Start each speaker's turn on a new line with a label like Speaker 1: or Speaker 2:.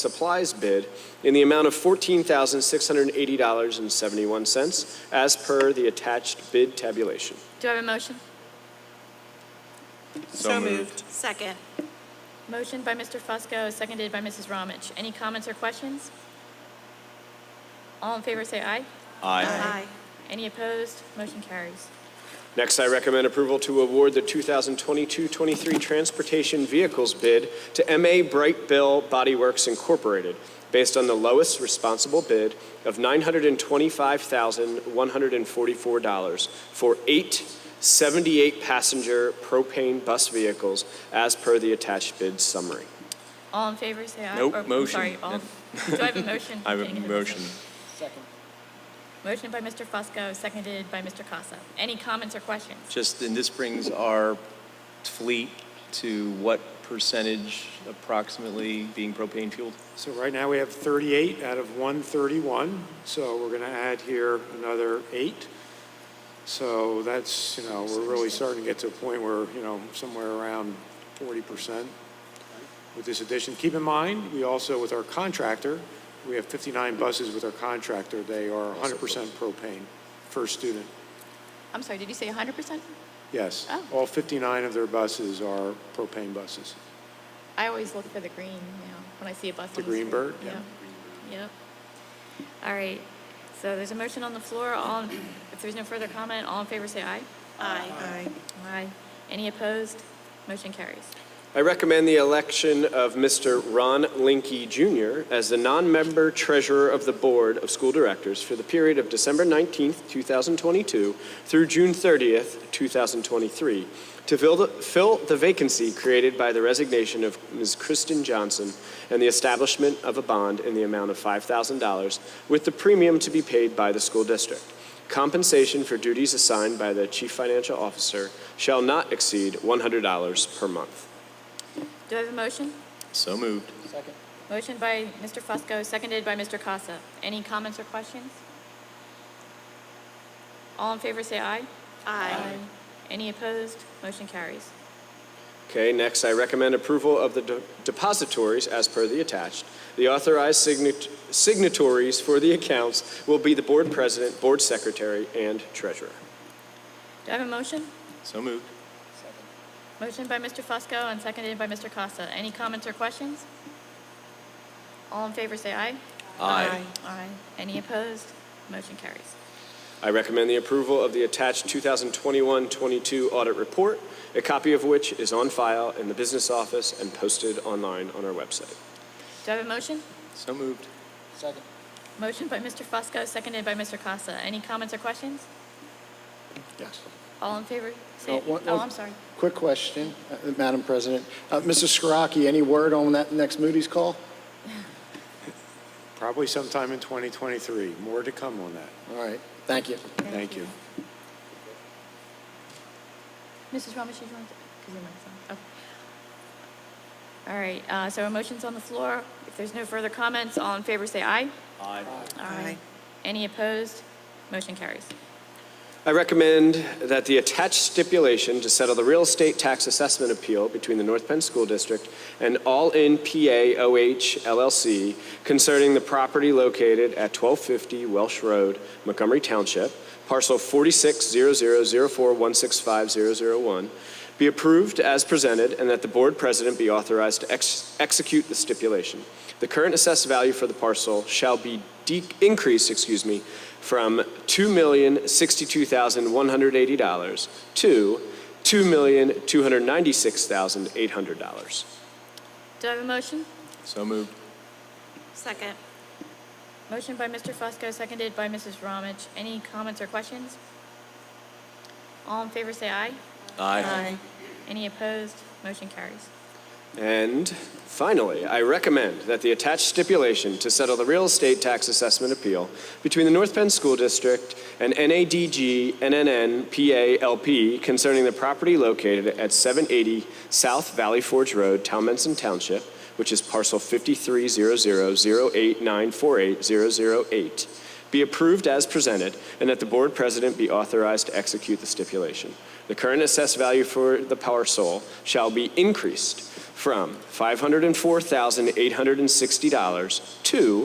Speaker 1: supplies bid in the amount of $14,680.71 as per the attached bid tabulation.
Speaker 2: Do I have a motion?
Speaker 3: So moved.
Speaker 4: Second.
Speaker 2: Motion by Mr. Fusco, seconded by Mrs. Ramich. Any comments or questions? All in favor say aye.
Speaker 4: Aye.
Speaker 2: Any opposed? Motion carries.
Speaker 1: Next, I recommend approval to award the 2022-23 Transportation Vehicles bid to MA Bright Bill Body Works Incorporated based on the lowest responsible bid of $925,144 for eight 78-passenger propane bus vehicles as per the attached bid summary.
Speaker 2: All in favor say aye.
Speaker 3: Nope,
Speaker 2: Or, I'm
Speaker 3: motion.
Speaker 2: Sorry, all, do I have a motion?
Speaker 3: I have
Speaker 2: Dang
Speaker 3: a
Speaker 2: it.
Speaker 3: motion.
Speaker 2: Motion by Mr. Fusco, seconded by Mr. Casa. Any comments or questions?
Speaker 3: Just, and this brings our fleet to what percentage approximately being propane fueled?
Speaker 5: So right now, we have 38 out of 131, so we're going to add here another eight. So that's, you know, we're really starting to get to a point where, you know, somewhere around 40% with this addition. Keep in mind, we also, with our contractor, we have 59 buses with our contractor. They are 100% propane, first student,
Speaker 2: I'm sorry, did you say 100%?
Speaker 5: yes.
Speaker 2: Oh.
Speaker 5: All 59 of their buses are propane buses.
Speaker 2: I always look for the green, you know, when I see a bus.
Speaker 5: The
Speaker 2: on
Speaker 5: green
Speaker 2: street.
Speaker 5: bird?
Speaker 2: Yep. Yep. All right. So there's a motion on the floor. All, in- if there's no further comment, all in favor say aye.
Speaker 4: Aye.
Speaker 2: Aye. Any opposed? Motion carries.
Speaker 1: I recommend the election of Mr. Ron Linky Jr. as the non-member treasurer of the Board of School Directors for the period of December 19th, 2022 through June 30th, 2023, to fill the- fill the vacancy created by the resignation of Ms. Kristen Johnson and the establishment of a bond in the amount of $5,000 with the premium to be paid by the school district. Compensation for duties assigned by the Chief Financial Officer shall not exceed $100 per month.
Speaker 2: Do I have a motion?
Speaker 3: So moved.
Speaker 2: Motion by Mr. Fusco, seconded by Mr. Casa. Any comments or questions? All in favor say aye.
Speaker 4: Aye.
Speaker 2: Any opposed? Motion carries.
Speaker 1: Okay, next, I recommend approval of the de- depositories as per the attached. The authorized signat- signatories for the accounts will be the board president, board secretary, and treasurer.
Speaker 2: Do I have a motion?
Speaker 3: So moved.
Speaker 2: Motion by Mr. Fusco and seconded by Mr. Costa. Any comments or questions? All in favor say aye.
Speaker 3: Aye.
Speaker 2: Aye. Any opposed? Motion carries.
Speaker 1: I recommend the approval of the attached 2021-22 audit report, a copy of which is on file in the business office and posted online on our website.
Speaker 2: Do I have a motion?
Speaker 3: So moved.
Speaker 2: Motion by Mr. Fusco, seconded by Mr. Costa. Any comments or questions?
Speaker 6: Yes.
Speaker 2: All in favor?
Speaker 6: Uh,
Speaker 2: Say,
Speaker 6: one-
Speaker 2: oh,
Speaker 6: one-
Speaker 2: I'm sorry.
Speaker 6: Quick question, uh, Madam President. Uh, Mrs. Skoraki, any word on that next Moody's call?
Speaker 5: Probably sometime in 2023. More to come on that.
Speaker 6: All right, thank you.
Speaker 5: Thank you.
Speaker 2: Mrs. Ramos, you want to, because your mic's on. Okay. All right, uh, so a motion's on the floor. If there's no further comments, all in favor say aye. Aye. Any opposed? Motion carries.
Speaker 1: I recommend that the attached stipulation to settle the real estate tax assessment appeal between the North Penn School District and All In PA OH LLC concerning the property located at 1250 Welsh Road, Montgomery Township, parcel 460004165001, be approved as presented and that the board president be authorized to ex- execute the stipulation. The current assessed value for the parcel shall be de- increased, excuse me, from $2,062,180 to $2,296,800.
Speaker 2: Do I have a motion?
Speaker 3: So moved.
Speaker 4: Second.
Speaker 2: Motion by Mr. Fusco, seconded by Mrs. Ramich. Any comments or questions? All in favor say aye. Any opposed? Motion carries.
Speaker 1: And finally, I recommend that the attached stipulation to settle the real estate tax assessment appeal between the North Penn School District and NADG NNN PA concerning the property located at 780 South Valley Forge Road, Talmenson Township, which is parcel 530008948008, be approved as presented, and that the board president be authorized to execute the stipulation. The current assessed value for the parcel shall be increased from $504,860 to